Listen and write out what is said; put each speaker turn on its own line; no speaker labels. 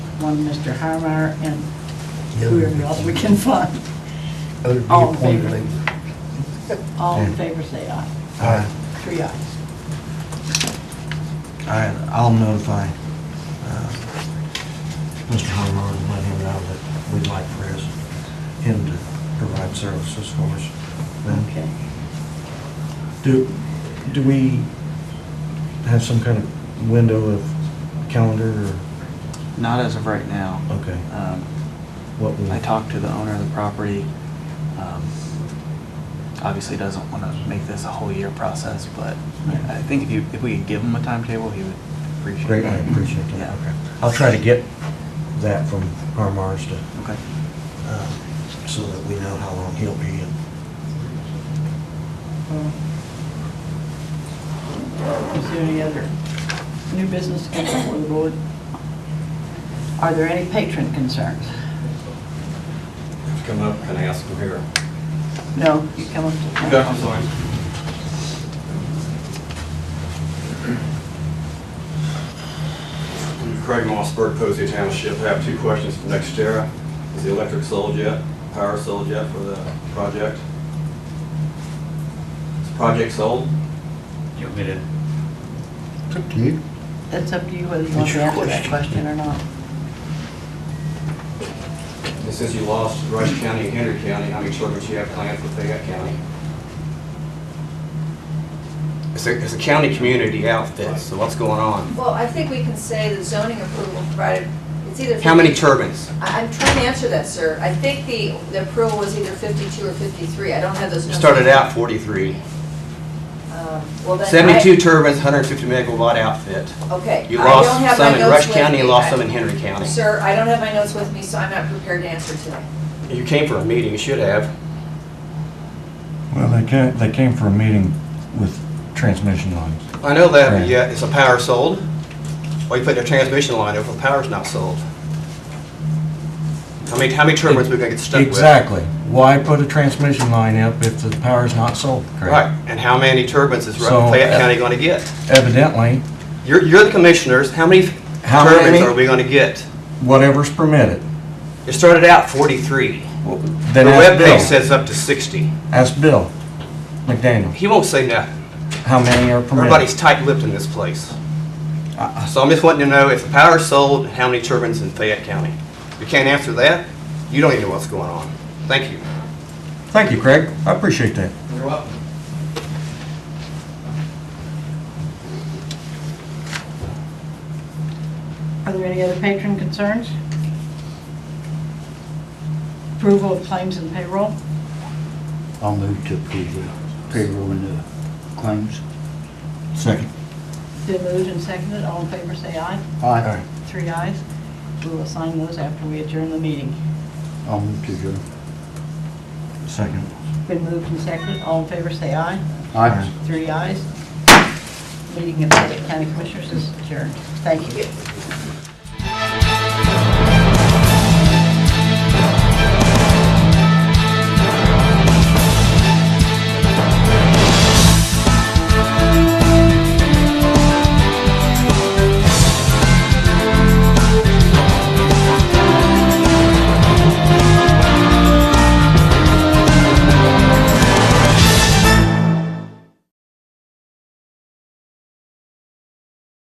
one Mr. Harmar, and whoever else we can find.
Other be
Oh,
All in
appointed
favor?
later.
All in favor, say aye.
All right,
Three ayes.
all right, I'll notify uh, Mr. Harmon and let him know that we'd like for his, him to provide services for us. Then
Okay.
Do, do we have some kind of window of calendar or,
Not as of right now.
okay,
Um,
what we?
I talked to the owner of the property. Um, Obviously doesn't want to make this a whole year process, but I I think if you, if we could give him a timetable, he would appreciate it.
Great, I appreciate that,
Yeah.
okay. I'll try to get that from Harmar's to,
Okay.
uh, so that we know how long he'll be in.
Is there any other new business to come before the board? Are there any patron concerns?
Come up and ask them here.
No, you come up to.
I'm sorry. Craig Mossberg, Posey Township, I have two questions for NextEra. Is the electric sold yet? Power sold yet for the project? Is the project sold?
You want me to,
It's up to you.
It's up to you whether you want to answer that question or not.
And since you lost Rush County and Henry County, how many tournaments you have planned for Fayette County?
It's a, it's a county community outfit, so what's going on?
Well, I think we can say the zoning approval provided, it's either.
How many turbines?
I- I'm trying to answer that, sir. I think the, the approval was either 52 or 53. I don't have those
It
numbers.
Started out 43.
Um, Well, then. I-
72 turbines, 150 megawatt outfit.
Okay.
You
I don't
lost
have my
some in
notes
Rush
with
County,
me.
you lost
I-
some in Henry County.
Sir, I don't have my notes with me, so I'm not prepared to answer today.
You came for a meeting, you should have.
Well, they came, they came for a meeting with transmission lines.
I know that,
Right.
but yeah, it's a power sold. Why you put their transmission line over, the power's not sold? How many, how many turbines we gonna get stuck with?
Exactly. Why put a transmission line up if the power's not sold? Craig?
Right, and how many turbines is
So,
Ru- Fayette
uh,
County gonna get?
Evidently,
You're, you're the commissioners, how many
How
turbines
many?
are we gonna get?
whatever's permitted.
It started out 43.
Well,
The
Then ask
webpage
Bill.
says up to 60.
Ask Bill McDaniel,
He won't say nothing.
how many are permitted?
Everybody's tight-lipped in this place.
Uh,
So I'm just wanting to know if the power's sold, how many turbines in Fayette County? You can't answer that? You don't even know what's going on. Thank you.
Thank you, Craig. I appreciate that.
You're welcome.
Are there any other patron concerns? Approval of claims and payroll?
I'll move to approve the payroll and the claims.
Second.
Been moved and seconded, all in favor, say aye.
Aye.
Three ayes. We'll assign those after we adjourn the meeting.
I'll move to adjourn.
Second.
Been moved and seconded, all in favor, say aye.
Aye.
Three ayes. Meeting of the County Commissioners is adjourned. Thank you.